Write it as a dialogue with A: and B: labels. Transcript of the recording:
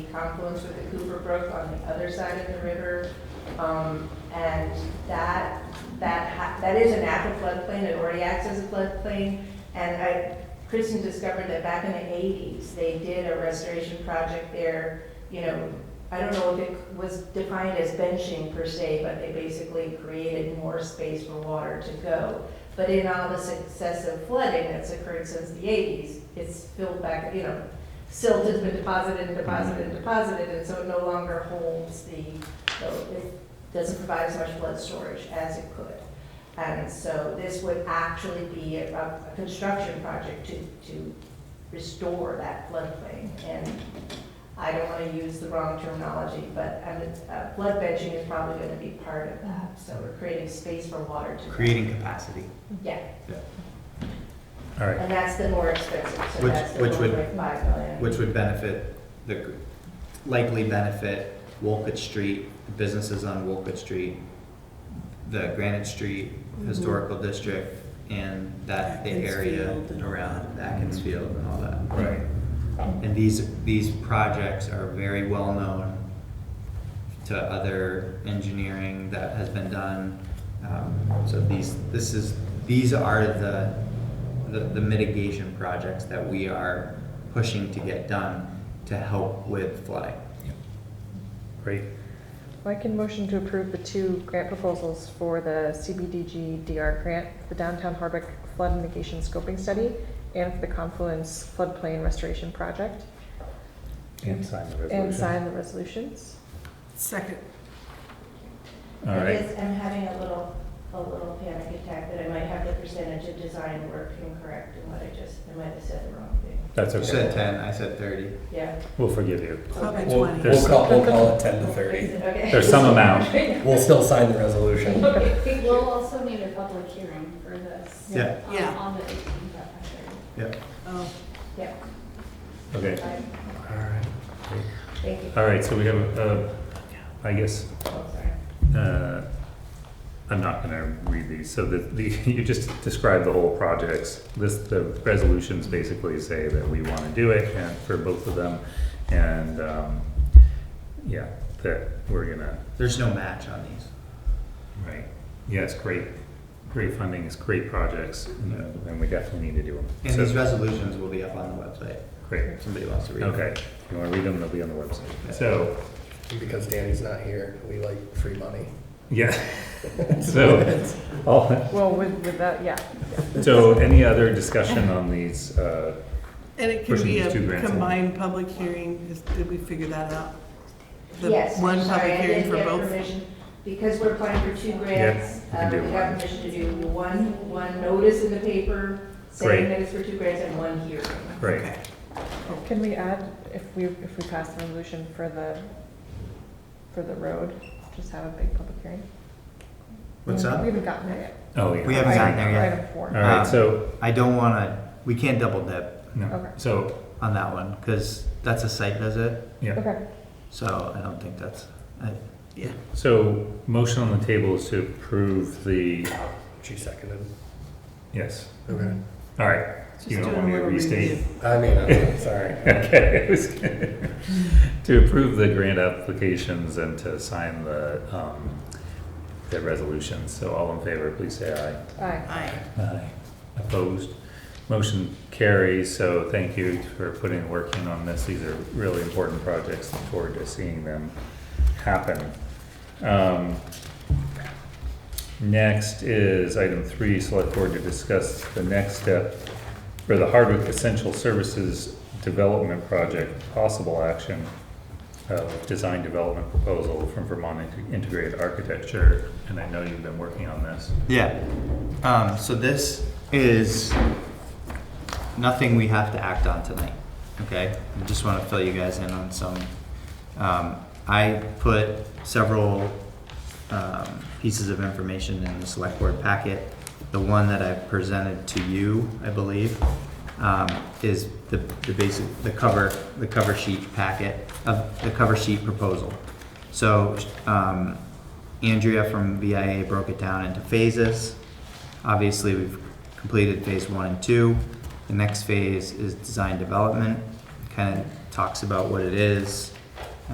A: confluence with the Cooper Brook on the other side of the river. Um, And that, that, ha- that is a natural floodplain, it already acts as a floodplain. And I, Kristen discovered that back in the eighties, they did a restoration project there, you know, I don't know if it was defined as benching per se, but they basically created more space for water to go. But in all the successive flooding that's occurred since the eighties, it's filled back, you know, silt has been deposited and deposited and deposited, and so it no longer holds the, so it doesn't provide as much flood storage as it could. And so this would actually be a, a construction project to, to restore that floodplain. And I don't want to use the wrong terminology, but um, uh, flood benching is probably going to be part of that. So we're creating space for water to.
B: Creating capacity.
A: Yeah,
B: All right.
A: and that's the more expensive, so
B: Which-
A: that's the
B: which would-
A: 1.5 million.
B: Which would benefit, the likely benefit Wolcott Street, the businesses on Wolcott Street, the Granite Street
C: Mm-hmm.
B: Historical District, and that, the area
C: Atkins Field and all Mm-hmm.
B: around Atkins Field and all that.
D: Right.
B: And these, these projects are very well-known to other engineering that has been done. Um, So these, this is, these are the, the the mitigation projects that we are pushing to get done to help with flooding.
D: Great.
E: I can motion to approve the two grant proposals for the CBDG DR grant, the Downtown Harbick Flood Mitigation Scoping Study, and for the Confluence Floodplain Restoration Project,
D: And sign the resolution.
E: and sign the resolutions.
C: Second.
D: All
A: I
D: right.
A: guess I'm having a little, a little panic attack that I might have the percentage of design work incorrect in what I just, I might have said the wrong thing.
D: That's
B: You said
D: okay.
B: ten, I said thirty.
A: Yeah.
D: We'll forgive you.
C: Okay,
F: We'll,
C: twenty.
D: There's-
F: we'll call, we'll call it ten to thirty.
A: Okay.
D: There's some amount.
F: We'll still sign the resolution.
G: We'll also need a public hearing for this.
B: Yeah.
G: um,
C: Yeah.
G: On the eighteenth at five thirty.
B: Yep.
C: Oh,
A: Yeah,
D: Okay.
A: fine.
D: All right.
A: thank you.
D: All right, so we have, uh, I guess,
A: Oh, sorry.
D: uh, I'm not gonna read these, so the, the, you just described the whole projects. This, the resolutions basically say that we wanna do it and for both of them, and, um, yeah, that we're gonna
B: There's no match on these.
D: Right. Yes, great, great funding is great projects, and uh, and we definitely need to do them.
B: And these resolutions will be up on the website,
D: Great,
B: if somebody wants to read. them.
D: okay. If you want to read them, they'll be on the website. So,
F: Because Danny's not here, we like free money.
D: yeah. So, all,
E: Well, with, without, yeah.
D: so any other discussion on these? uh,
C: And it can
D: Pushing
C: be
D: these two
C: a
D: grants along.
C: combined public hearing, Is- did we figure that out? The
A: Yes,
C: One
A: I'm sorry,
C: public
A: I
C: hearing
A: didn't
C: for
A: get
C: both?
A: permission, because we're applying for two grants,
D: we can
A: uh,
D: do
A: we got
D: one.
A: permission to do one, one notice in the paper,
D: Great.
A: seven minutes for two grants and one hearing.
D: Right,
C: Okay.
E: Can we add, if we, if we pass the resolution for the, for the road, just have a big public hearing?
B: What's
E: We
B: up?
E: haven't gotten there yet.
D: oh, yeah.
B: We haven't gotten there yet.
E: Item
D: All
E: four.
D: right, so,
B: I don't wanna, we can't double dip
E: Okay.
D: no, so,
B: on that one, because that's a site visit,
D: yeah.
E: Okay,
B: so I don't think that's, I,
C: Yeah.
D: So, motion on the table is to approve the,
F: She seconded.
D: yes,
F: Okay.
D: all right.
C: Just
D: You don't
C: doing a
D: want me to
C: little
D: restate?
C: review.
F: I mean, I'm sorry.
D: Okay, it was good. To approve the grant applications and to sign the, um, the resolutions. So all in favor, please say
E: aye.
C: Aye.
D: aye. Aye. Opposed? Motion carries, so thank you for putting, work in on this. These are really important projects. Look forward to seeing them happen. Um, Next is item three, select board to discuss the next step for the Hardwick Essential Services Development Project, possible action of design development proposal from Vermont Inte- Integrated Architecture, and I know you've been working on this.
B: Yeah. Um, so this is nothing we have to act on tonight. Okay. I just want to fill you guys in on some. Um, I put several um, pieces of information in the select board packet. The one that I presented to you, I believe, um, is the, the basic the cover the cover sheet packet of the cover sheet proposal. So um, Andrea from VIA broke it down into phases. Obviously, we've completed phase one and two. The next phase is design development, kind of talks about what it is,